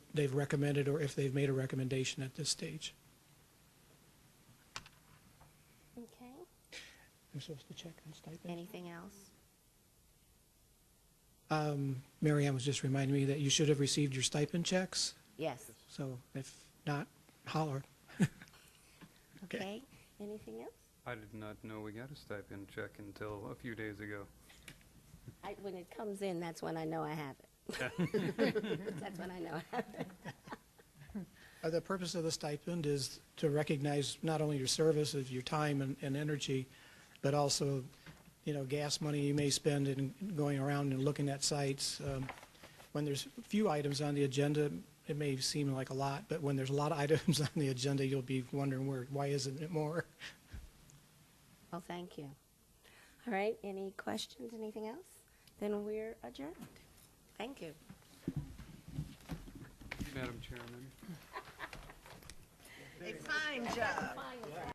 they've recommended or if they've made a recommendation at this stage. Okay, I'm supposed to check on stipends? anything else? Um, Mary Ann was just reminding me that you should have received your stipend checks, Yes, so if not, holler. Okay. okay, anything else? I did not know we got a stipend check until a few days ago. I, when it comes in, that's when I know I have it. That's when I know I have it. Uh, The purpose of the stipend is to recognize not only your service, of your time and, and energy, but also, you know, gas money you may spend in going around and looking at sites. Um, When there's few items on the agenda, it may seem like a lot, but when there's a lot of items on the agenda, you'll be wondering where, why isn't it more? Well, thank you. All right, any questions, anything else? Then we're adjourned. Thank you. Madam Chairman, A fine job.